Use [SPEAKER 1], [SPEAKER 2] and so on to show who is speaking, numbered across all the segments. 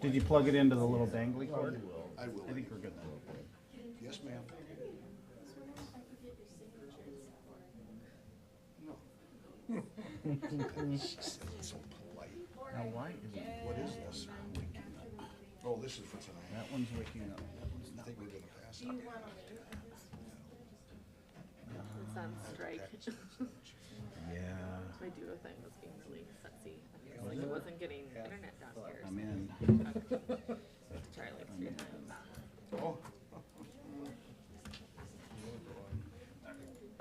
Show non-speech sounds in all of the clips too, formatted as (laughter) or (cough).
[SPEAKER 1] Did you plug it into the little dangly cord?
[SPEAKER 2] I will.
[SPEAKER 1] I think we're good then.
[SPEAKER 2] Yes, ma'am. No. So polite.
[SPEAKER 1] Now, why is it,
[SPEAKER 2] What is this? Oh, this is for tonight.
[SPEAKER 1] that one's waking up. That one's
[SPEAKER 2] I
[SPEAKER 1] not.
[SPEAKER 2] think we're gonna pass it.
[SPEAKER 3] It's on strike.
[SPEAKER 1] Yeah,
[SPEAKER 3] (laughs) My duo thing was being really sexy. It's like it wasn't getting internet down here.
[SPEAKER 1] I'm in.
[SPEAKER 3] so I had to
[SPEAKER 2] (laughs)
[SPEAKER 3] Try like three times.
[SPEAKER 2] Oh,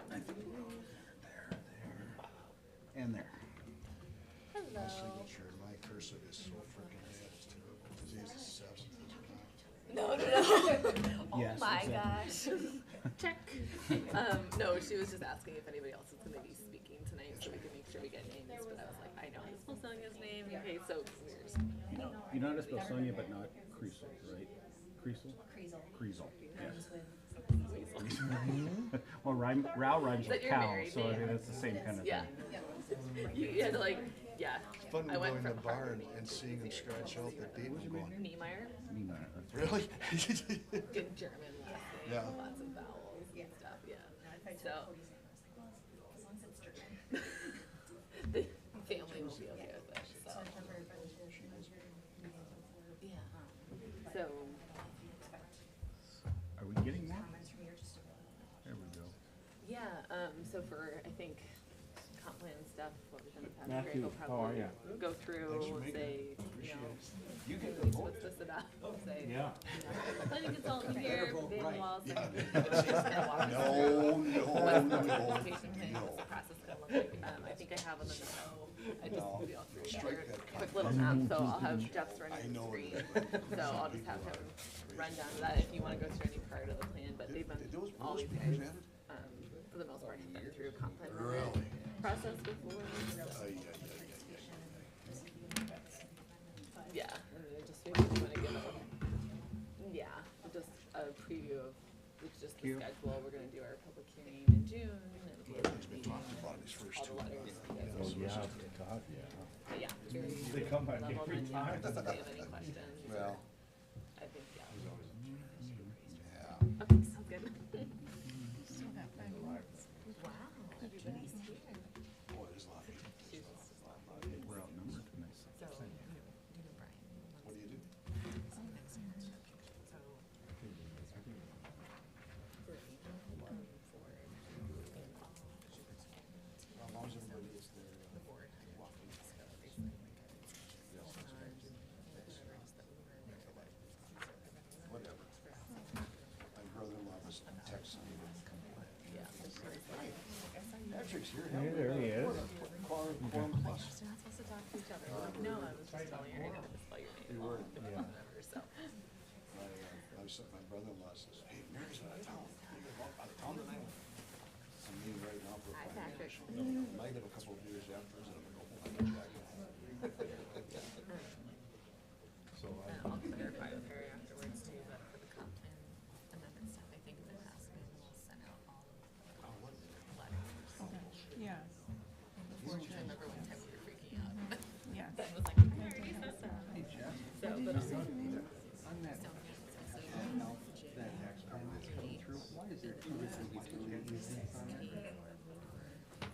[SPEAKER 1] I think we're over there, there, there, and there.
[SPEAKER 2] my signature, my cursive is so freaking bad, it's terrible. Today's the seventh.
[SPEAKER 3] No, no, no.
[SPEAKER 2] Oh
[SPEAKER 1] Yes,
[SPEAKER 4] My
[SPEAKER 1] exactly.
[SPEAKER 4] gosh.
[SPEAKER 2] (laughs)
[SPEAKER 3] Check. Um, no, she was just asking if anybody else is gonna be speaking tonight so we can make sure we get names, but I was like, I know I'm still selling his name. Okay, so we're just
[SPEAKER 1] You know, you know how to spell Sonia, but not Creasel, right? Creasel?
[SPEAKER 4] Creasel.
[SPEAKER 1] Creasel,
[SPEAKER 4] Rhymes
[SPEAKER 1] yes.
[SPEAKER 4] with
[SPEAKER 1] Well, rhyme, Rao rhymes
[SPEAKER 3] But
[SPEAKER 1] with
[SPEAKER 3] you're
[SPEAKER 1] cow,
[SPEAKER 3] married,
[SPEAKER 1] so I
[SPEAKER 3] yeah.
[SPEAKER 1] mean, it's the same kind of thing.
[SPEAKER 3] Yeah. (laughs) You, you had to like, yeah.
[SPEAKER 2] Fun
[SPEAKER 3] I went
[SPEAKER 2] going to
[SPEAKER 3] from
[SPEAKER 2] the bar and,
[SPEAKER 3] Harmony
[SPEAKER 2] and
[SPEAKER 3] to
[SPEAKER 2] seeing them
[SPEAKER 3] Xavier.
[SPEAKER 2] scratch out the date and going,
[SPEAKER 3] Niemeyer,
[SPEAKER 1] Mean, uh, that's-
[SPEAKER 3] (laughs)
[SPEAKER 2] really? (laughs)
[SPEAKER 3] good German last name,
[SPEAKER 2] Yeah.
[SPEAKER 3] lots of vowels and stuff, yeah. So,
[SPEAKER 4] As long as it's German.
[SPEAKER 3] the family will be okay with it, so, yeah. So,
[SPEAKER 1] Are we getting more? There we go.
[SPEAKER 3] yeah, um, so for, I think, comp plan stuff, what we've done the past
[SPEAKER 5] Matthew,
[SPEAKER 3] year, we'll
[SPEAKER 5] how are
[SPEAKER 3] probably
[SPEAKER 5] ya?
[SPEAKER 3] go through, say, you
[SPEAKER 2] Appreciate
[SPEAKER 3] know,
[SPEAKER 2] it. You
[SPEAKER 3] Hey,
[SPEAKER 2] get the
[SPEAKER 3] what's
[SPEAKER 2] vote.
[SPEAKER 3] what's this about? Say,
[SPEAKER 5] Yeah.
[SPEAKER 3] you know, planning consultant here, Van Wall,
[SPEAKER 2] (laughs) Yeah.
[SPEAKER 3] second. She's gonna walk us through
[SPEAKER 2] No, no,
[SPEAKER 3] What's the
[SPEAKER 2] no,
[SPEAKER 3] implementation plan, what's
[SPEAKER 2] no.
[SPEAKER 3] the process gonna look like? Um, I think I have on the note, I just
[SPEAKER 2] No.
[SPEAKER 3] put it all through
[SPEAKER 2] Strike
[SPEAKER 3] here,
[SPEAKER 2] that
[SPEAKER 3] quick little map, so I'll have Jeff's running
[SPEAKER 2] I
[SPEAKER 3] the
[SPEAKER 2] know
[SPEAKER 3] screen.
[SPEAKER 2] that.
[SPEAKER 3] (laughs) So I'll just have him run down to that if you wanna go through any part of the plan, but they've
[SPEAKER 2] Did
[SPEAKER 3] been,
[SPEAKER 2] did those
[SPEAKER 3] all
[SPEAKER 2] rules
[SPEAKER 3] these
[SPEAKER 2] be
[SPEAKER 3] guys,
[SPEAKER 2] presented?
[SPEAKER 3] um, for the most part, have been through comp plan
[SPEAKER 2] Really?
[SPEAKER 3] process before, so.
[SPEAKER 2] Ay, ay, ay, ay, ay.
[SPEAKER 3] Yeah, and then just maybe you wanna give a, yeah, just a preview of, it's just the
[SPEAKER 1] Cute.
[SPEAKER 3] schedule, we're gonna do our public hearing in June and the
[SPEAKER 2] He's been talking about his first
[SPEAKER 3] all
[SPEAKER 2] two.
[SPEAKER 3] the letters.
[SPEAKER 2] Oh, yeah.
[SPEAKER 3] But yeah, very
[SPEAKER 1] They come by
[SPEAKER 3] level
[SPEAKER 1] every
[SPEAKER 3] menus,
[SPEAKER 1] time.
[SPEAKER 3] if they have any questions,
[SPEAKER 2] (laughs) Well,
[SPEAKER 3] I think, yeah.
[SPEAKER 2] yeah.
[SPEAKER 3] Okay, so good. Wow. Everybody's here.
[SPEAKER 2] Boy, there's a lot. of-
[SPEAKER 3] She's-
[SPEAKER 1] We're outnumbered tonight.
[SPEAKER 3] So, you know, Brian,
[SPEAKER 2] What do you do?
[SPEAKER 3] So. For email, one for.
[SPEAKER 2] How long is everybody is there? uh, walking? Whatever. My brother-in-law was texting me. Patrick's here. Hey, there he is. Quorum plus.
[SPEAKER 3] We're not supposed to talk to each other. Like, no, I was just telling her, I didn't spell your name.
[SPEAKER 2] were,
[SPEAKER 3] wrong, Whatever, so.
[SPEAKER 2] My, uh, my son- my brother-in-law says, hey, Mary's out of town. You gonna go Out of town tonight? I'm meeting right now for a
[SPEAKER 3] Hi, Patrick.
[SPEAKER 2] financial. I might have a couple of beers afterwards and I'm gonna go home. I'm gonna jack it. So I.
[SPEAKER 3] And I'll clarify with her afterwards too, but for the comp plan amendment stuff, I think in the past, we will send out all
[SPEAKER 2] Oh, what?
[SPEAKER 3] the letters.
[SPEAKER 6] Yeah,
[SPEAKER 3] Before, I remember one time we were freaking out.
[SPEAKER 6] yeah.
[SPEAKER 3] Ben was like, I already sent them. So,
[SPEAKER 6] Did
[SPEAKER 3] but
[SPEAKER 6] you
[SPEAKER 3] I'll.
[SPEAKER 6] see on that,
[SPEAKER 3] so, yeah, so- so-
[SPEAKER 5] that tax plan that's coming through? Why is there two different utilities on it?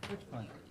[SPEAKER 1] Which one?